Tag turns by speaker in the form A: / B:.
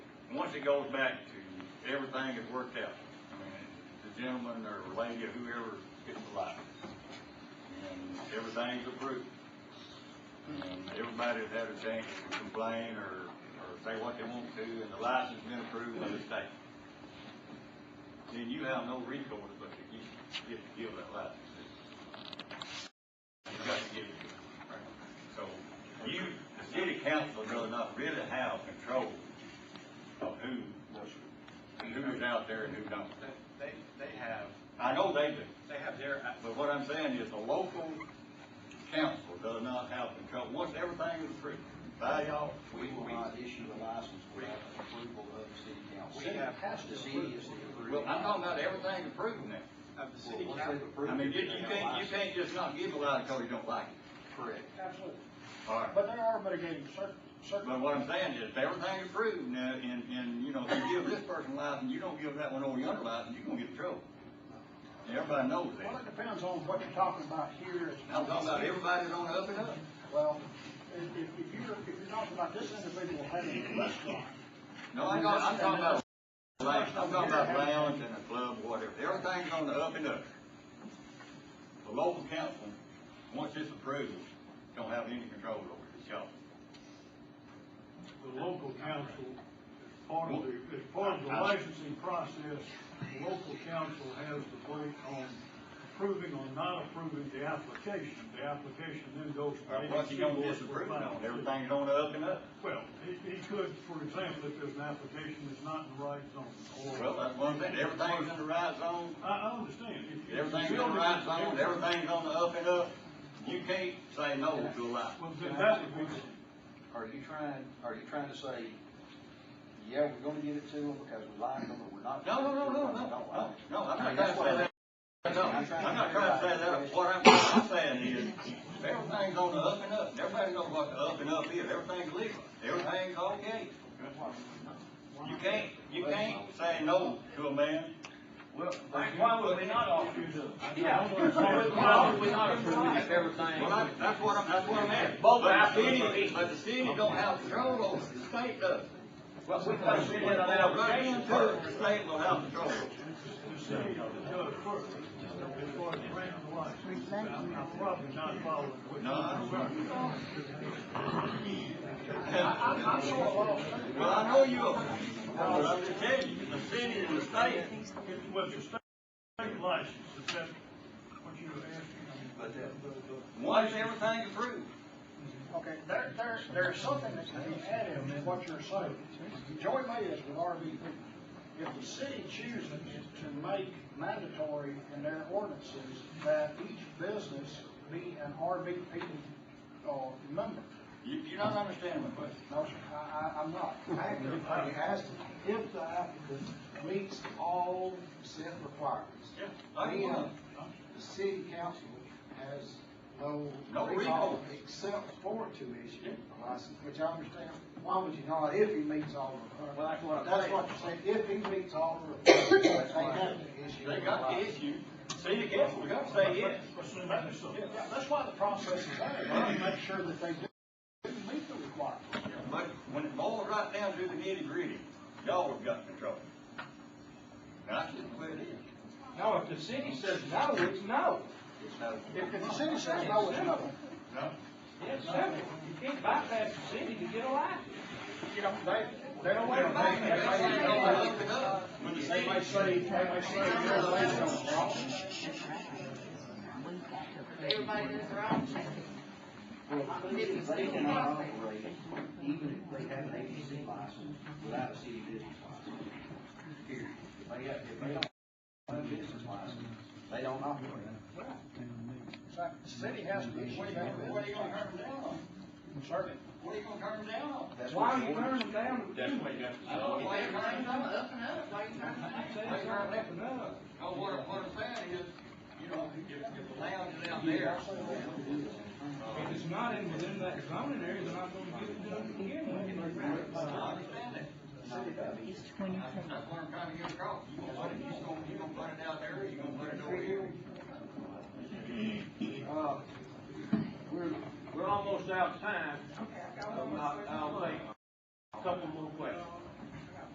A: as it goes back to, everything has worked out. I mean, the gentleman or lady or whoever gets the lot. And everything's approved. And everybody's had a chance to complain or, or say what they want to, and the license been approved by the state. Then you have no recourse but to give, give, give that license. You got to give it to them. So you, the city council does not really have control of who, who is out there and who don't.
B: They, they have,
A: I know they do.
B: they have their,
A: But what I'm saying is the local council does not have control, once everything is approved by y'all,
C: We will not issue a license without approval of the city council.
B: We have-
C: The city is the approving.
A: well, I'm talking about everything approved now.
B: of the
C: Well,
B: city
C: once
B: council.
C: they've approved
A: I mean,
C: it,
A: you,
C: they
A: you
C: have
A: can't, you
C: license.
A: can't just not give a lot because you don't like it.
C: Correct.
D: Absolutely.
A: All right.
D: But there are mitigating cir-
A: But
D: circumstances.
A: what I'm saying is, if everything approved now, and, and, you know, if you give this person license, you don't give that one over yonder license, you're gonna get in trouble. And everybody knows
D: Well,
A: that.
D: it depends on what you're talking about here. as-
A: I'm talking about everybody's on the up and up.
D: Well, if, if if you're, if you're talking about this individual having a restaurant,
A: No, I'm talking, I'm talking about, lounge. I'm talking about lounge and a club, whatever, everything's on the up and up. The local council, once it's approved, don't have any control over it, it's y'all.
E: the local council, as part of the, as part of the licensing process, the local council has the weight on approving or not approving the application. The application then goes to
A: Or Once you don't
E: ABC
A: disapprove
E: board
A: on,
E: for
A: it, everything's on the up and up.
E: Well, he, he could, for example, if there's an application that's not in the right zone, or.
A: Well, that's one thing, everything's in the right zone,
E: I, I understand. If- if
A: everything's in the
E: building-
A: right zone, everything's on the up and up, you can't say no to a license.
E: Well, then that would be,
C: Are you trying, are you trying to say, yeah, we're gonna give it to them because we like them, but we're not?
A: No, no, no, no, no,
C: We don't like
A: no,
C: them.
A: no, I'm not trying
C: That's
A: to
C: what
A: say
C: I'm-
A: that. No, I'm not trying to say that, what I'm, what I'm saying is, everything's on the up and up, everybody knows what the up and up is, everything's legal, everything's okay. You can't, you can't say no to a man.
F: Well, why would we not offer you the?
E: Yeah.
F: Why would we not approve if
A: Well,
F: everything?
A: I- that's what I'm, that's what I'm asking.
F: Both
A: But the
F: absolutely.
A: city, but the city don't have control over it, the state does.
F: Well, we put it in an application first.
A: The state will have control over it.
E: the city does first, as far as granting the license. I'm I'm probably not following what you're
A: No, I'm
E: saying.
A: Well, I know you are, but I'm just telling you, the city and the state,
E: It's what the state license, is that what you were asking? I mean,
C: But that-
E: the- the-
A: once everything approved,
D: okay, there, there's, there's something that can be added in what you're saying. Joey May is with RVP. If the city chooses to make mandatory in their ordinances that each business be an RVP, uh, member,
A: you, you don't understand my question.
D: No, sir, I, I, I'm not. I asked if the applicant meets all set requirements.
A: Yeah, I
D: We, uh,
A: know.
D: The city council has no.
A: No recall.
D: Except for to issue a license, which I understand. Why would you not if he meets all the
F: Well,
D: requirements?
F: that's what I'm
D: That's
F: saying.
D: what you're saying, if he meets all the requirements, they have to issue.
A: They
D: a
A: got the
D: license.
A: issue, city council, we got to say yes.
E: But see, that is something.
D: Yeah, yeah, that's why the process is there, to make sure that they do meet the requirements.
A: But when it boils right down to the nitty gritty, y'all have got control. That's just the way it is.
F: No, if the city says no, it's no.
A: It's no,
D: If if the city says no, it's no.
A: no.
F: It's simple. You can't bypass the city to get a license.
D: You know, they, they don't
A: They
D: wait
A: don't make
D: around. They
A: it. They
D: say,
A: don't
D: "Oh,
A: look it up. When the
D: They
A: city,
D: might say, they might say, you're a landowner, wrong.
G: Everybody does wrong.
C: Well, They cannot operate, even if they have an ABC license, without a city business license. Period. If they have, if they don't have a business license, they don't operate.
D: In fact, the city has to issue
A: what are you
D: that.
A: gonna, what are you gonna turn them down on?
D: Certainly.
A: What are you gonna turn them down on?
C: That's
F: Why
C: what
F: are
C: the
F: you
C: ordinance-
F: turning them down?
A: I don't know why you're turning them down.
G: Up and up, why you trying to?
F: Say it's not up and up.
A: No, what, what I'm saying is, you know, if, if the lounge is out there,
F: If it's not in within that zoning area, they're not gonna get it done to begin with.
A: I understand that. That's that's what I'm trying to get across. You gonna put it, you gonna, you gonna put it out there, or you gonna put it over here?
F: Uh, We're, we're almost out of time. Um, I- I'll take a couple more questions.